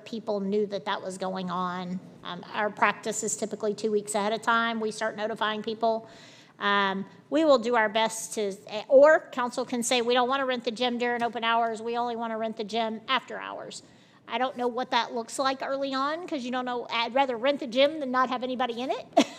people knew that that was going on. Um, Our practice is typically two weeks ahead of time, we start notifying people. Um, We will do our best to, or council can say, we don't want to rent the gym during open hours, we only want to rent the gym after hours. I don't know what that looks like early on, because you don't know, I'd rather rent the gym than not have anybody in it.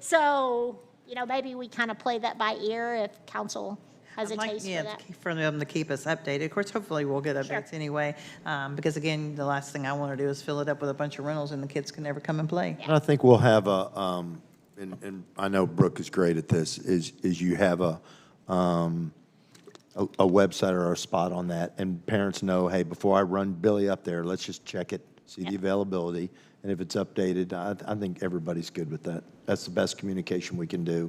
So, you know, maybe we kind of play that by ear if council has a I'd like, taste yeah, for that. keep- For them to keep us updated. Of course, hopefully we'll get updates anyway. um, Because again, the last thing I want to do is fill it up with a bunch of rentals and the kids can never come and play. And I think we'll have a, um, and, and I know Brooke is great at this, is, is you have a, um, a, a website or a spot on that, and parents know, hey, before I run Billy up there, let's just check it, see the availability, and if it's updated, I, I think everybody's good with that. That's the best communication we can do.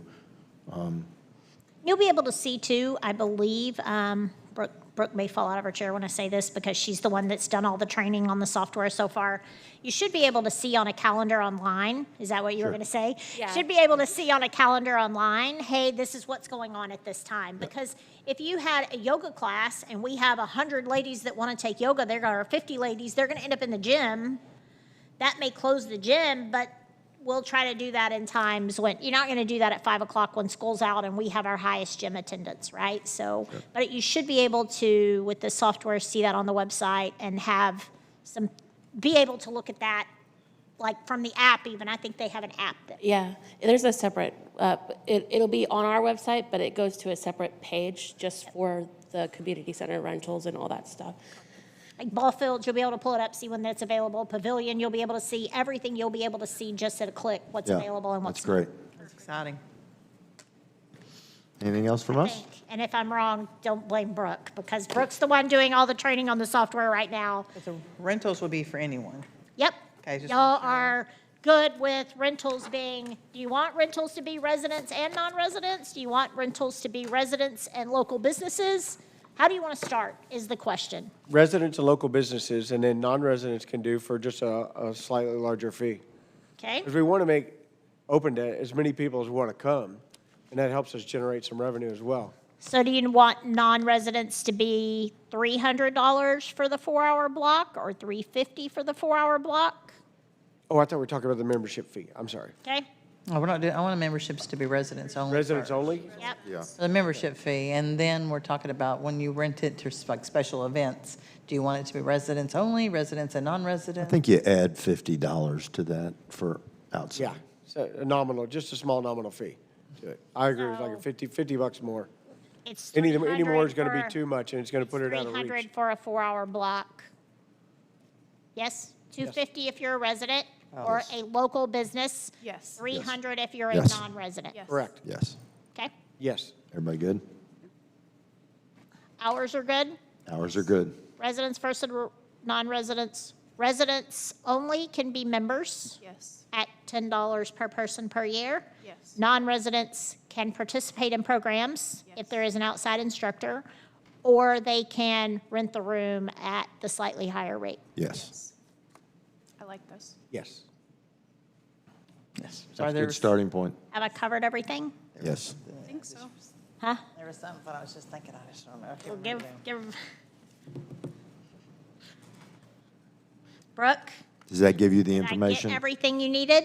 You'll be able to see too, I believe, um, Brooke, Brooke may fall out of her chair when I say this because she's the one that's done all the training on the software so far. You should be able to see on a calendar online, is that what you were gonna say? Yeah. Should be able to see on a calendar online, hey, this is what's going on at this time. Because if you had a yoga class and we have a hundred ladies that wanna take yoga, they're gonna, or fifty ladies, they're gonna end up in the gym. That may close the gym, but we'll try to do that in times when, you're not going to do that at five o'clock when school's out and we have our highest gym attendance, right? So, but you should be able to, with the software, see that on the website and have some, be able to look at that, like from the app even. I think they have an app that, Yeah, there's a separate, uh, it, it'll be on our website, but it goes to a separate page just for the community center rentals and all that stuff. like ball fields, you'll be able to pull it up, see when that's available. Pavilion, you'll be able to see everything. You'll be able to see just at a click what's Yeah, available and what's That's not. great. That's exciting. Anything else from us? think. And if I'm wrong, don't blame Brooke, because Brooke's the one doing all the training on the software right now. But The rentals will be for anyone. Yep. Okay, just Y'all make sure. are good with rentals being, do you want rentals to be residents and non-residents? Do you want rentals to be residents and local businesses? How do you want to start, is the question. residents and local businesses, and then non-residents can do for just a, a slightly larger fee. Okay? Because we want to make open to as many people as want to come, and that helps us generate some revenue as well. So do you want non-residents to be $300 for the four-hour block or 350 for the four-hour block? Oh, I thought we were talking about the membership fee. I'm sorry. Okay? No, Oh, we're not doing, I want the memberships to be residents only. Residents first. only? Yep. Yeah. The membership fee, and then we're talking about when you rent it to like special events. Do you want it to be residents only, residents and I non-residents? think you add fifty dollars to that for outside. Yeah, so a nominal, just a small nominal fee to it. I agree, it's like a So- 50, 50 bucks more. It's Any, any more 300 is going to for- be too much, and it's going to put it out of 300 reach. for a four-hour block. Yes? 250 if you're a resident or a local business? Yes. 300 if you're a Yes. non-resident? Yes. Correct, Yes. Okay? yes. Everybody good? Hours are good? Hours are good. Residents versus r- non-residents? Residents only can be members Yes. at $10 per person per year. Yes. Non-residents can participate in programs if Yes. there is an outside instructor, or they can rent the room at the slightly higher rate. Yes. I like this. Yes. Yes. Are That's a there- good starting point. Have I covered everything? Yes. I think so. Huh? There was something, but I was just thinking, I just don't know. I can't Well, remember give, now. give. Brooke, Does that give you the did I get information? everything you needed?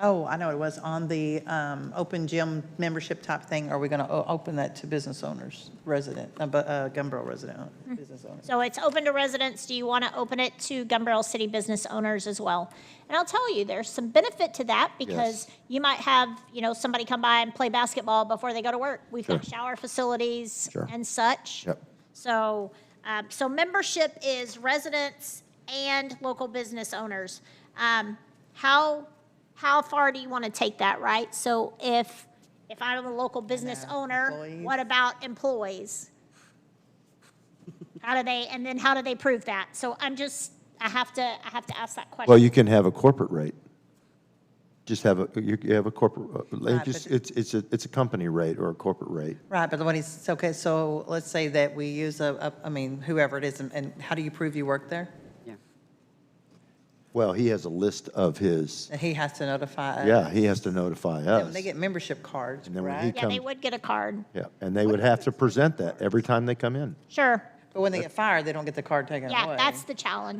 Oh, I know, it was on the um, open gym membership type thing. Are we going to open that to business owners, resident, uh, bu- uh, Gumbel resident, Mm-hmm. uh, business owners? So it's open to residents. Do you want to open it to Gumbarrel City business owners as well? And I'll tell you, there's some benefit to that because you might have, you know, somebody come by and play basketball before they go to work. We've got Sure. shower facilities Sure. and such. Yep. So, um, so membership is residents and local business owners. Um, how, how far do you want to take that, right? So if, if I'm a local business owner, employees. what about employees? How do they, and then how do they prove that? So I'm just, I have to, I have to ask that question. Well, you can have a corporate rate. Just have a, you you have a corporate, uh, Right, like, just- it's, it's a, it's a company rate or a corporate rate. Right, but what he's, okay, so let's say that we use a, a- I mean, whoever it is, and- and how do you prove you work there? Well, he has a list of his, He has to notify us. yeah, he has to notify And us. Uh, They get membership cards, And then when he right? Yeah, they comes, would get a card, yeah, and they would have to present that every time they come in. sure. But when they get fired, they don't get the card taken away. Yeah, that's the challenge.